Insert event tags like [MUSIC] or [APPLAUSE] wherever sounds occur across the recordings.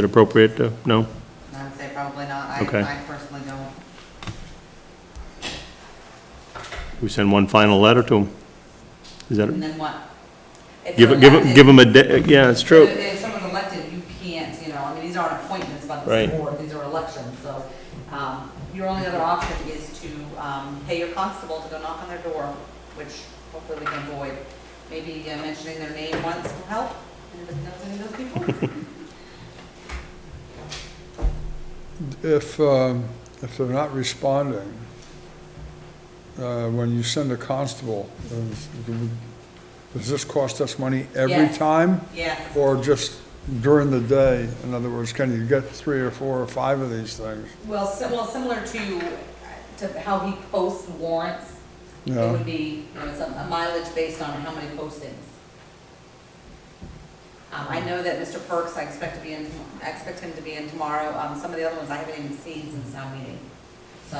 it appropriate to, no? I would say probably not. I, Okay. I personally don't. We send one final letter to them? Is And that, then what? If give, you're it- give, it- elected- give them a, da- yeah, it's If- true. If someone's elected, you can't, you know, I mean, these aren't appointments by the Right. board, these are elections, so, um, your only other option is to, um, pay your constable to go knock on their door, which hopefully we can avoid. Maybe uh, mentioning their name once will help, anybody knows any of those [LAUGHS] people? If, um, if they're not responding, uh, when you send a constable, is- does this cost us money every Yes. time? Yes, Or just during the day? In other words, can you get three or four or five of these things? well, sim- well, similar to, to how he posts warrants, it Yeah. would be, you know, it's a mileage based on how many postings. Um, I know that Mr. Perks, I expect to be in, I expect him to be in tomorrow, um, some of the other ones I haven't even seen since town meeting. So,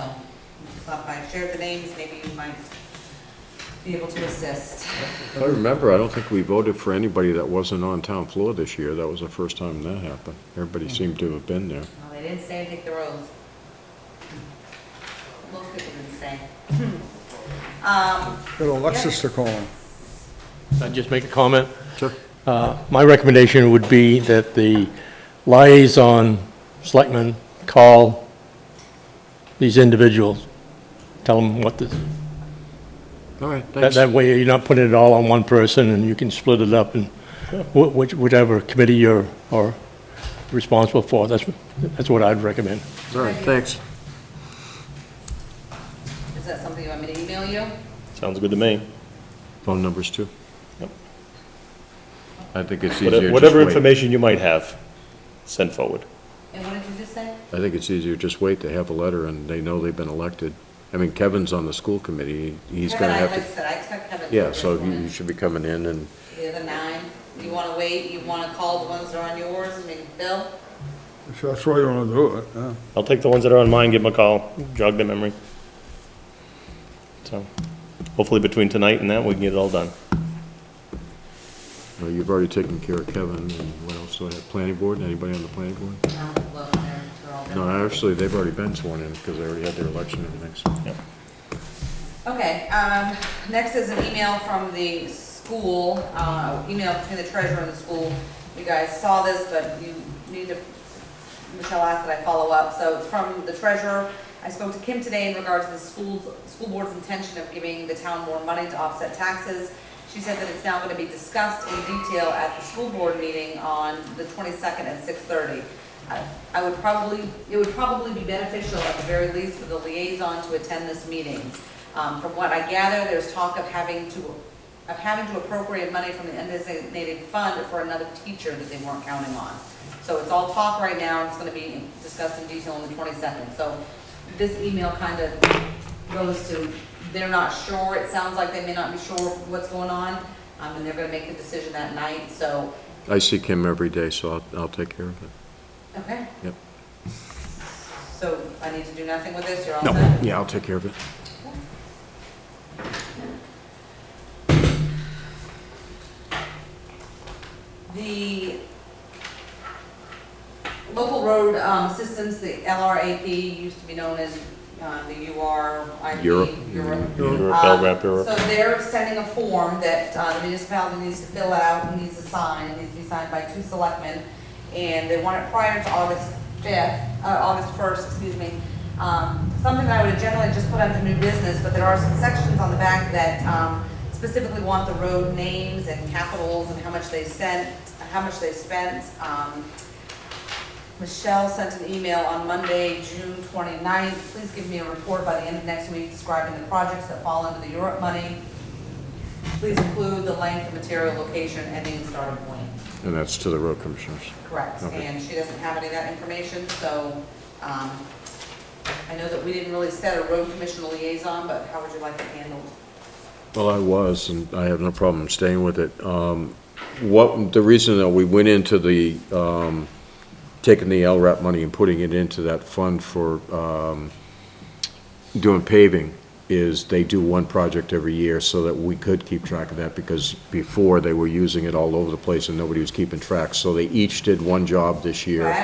so if I share the names, maybe you might be able to assist. I remember, I don't think we voted for anybody that wasn't on town floor this year. That was the first time that happened. Everybody Mm. seemed to have been there. Well, they didn't say take the roads. Most people didn't say. Um, Get Alexis to call them. I'd just make a comment. Sure. Uh, My recommendation would be that the liaison selectmen call these individuals, tell them what the, All right, that thanks. that way you're not putting it all on one person and you can split it up and wh- which- whichever committee you're, are responsible for. That's, that's what I'd recommend. All right, thanks. is that something you want me to email you? Sounds good to me. Phone numbers too? Yep. I think it's easier just Whatever wait. whatever information you might have, send forward. And what did you just say? I think it's easier just wait. They have a letter and they know they've been elected. I mean, Kevin's on the school committee. He's Kevin, gonna I- have Like I to, said, I expect Kevin. to yeah, be so you informed. you should be coming in and, The other nine, you wanna wait, you wanna call the ones that are on yours, I mean, Bill? If that's why you want to do it, yeah. I'll take the ones that are on mine, give them a call, jog their memory. So, hopefully between tonight and that, we can get it all done. well, you've already taken care of Kevin and what else do I have? Planning board? Anybody on the planning board? No, look, they're, they're all No, done. actually, they've already been sworn in because they already had their election and everything. so- Okay, um, next is an email from the school, uh, email between the treasurer and the school. You guys saw this, but you need to, Michelle asked that I follow up, so it's from the treasurer. I spoke to Kim today in regards to the school's, school board's intention of giving the town more money to offset taxes. She said that it's now gonna be discussed in detail at the school board meeting on the twenty-second at six-thirty. I- I would probably, it would probably be beneficial at the very least for the liaison to attend this meeting. Um, From what I gather, there's talk of having to, of having to appropriate money from the undesignated fund for another teacher that they weren't counting on. So it's all talk right now, it's gonna be discussed in detail on the twenty-second. So this email kind of goes to, they're not sure, it sounds like they may not be sure what's going on, um, and they're gonna make the decision that night, so, I see Kim every day, so I'll, I'll take care of it. okay, Yep. so I need to do nothing with this, you're all No, set? yeah, I'll take care of it. The local road um, systems, the LRAP, used to be known as uh, the URIP. Europe. You're a Uh, bell rep, you're a- So they're sending a form that uh, the municipality needs to fill out, needs to sign, needs to be signed by two selectmen, and they want it prior to August fifth, uh, August first, excuse me. Um, something that I would generally just put under new business, but there are some sections on the back that, um, specifically want the road names and capitals and how much they sent, how much they spent, um, Michelle sent an email on Monday, June 29th. Please give me a report by the end of next week describing the projects that fall under the Europe money. Please include the length, the material, location, ending and starting point. And that's to the road commissioners. Correct. Okay. And she doesn't have any of that information, so um, I know that we didn't really set a road commission liaison, but how would you like it handled? Well, I was, and I have no problem staying with it. Um, What, the reason that we went into the, um, taking the LRAP money and putting it into that fund for um, doing paving is they do one project every year so that we could keep track of that because before they were using it all over the place and nobody was keeping track. So they each did one job this year. Right.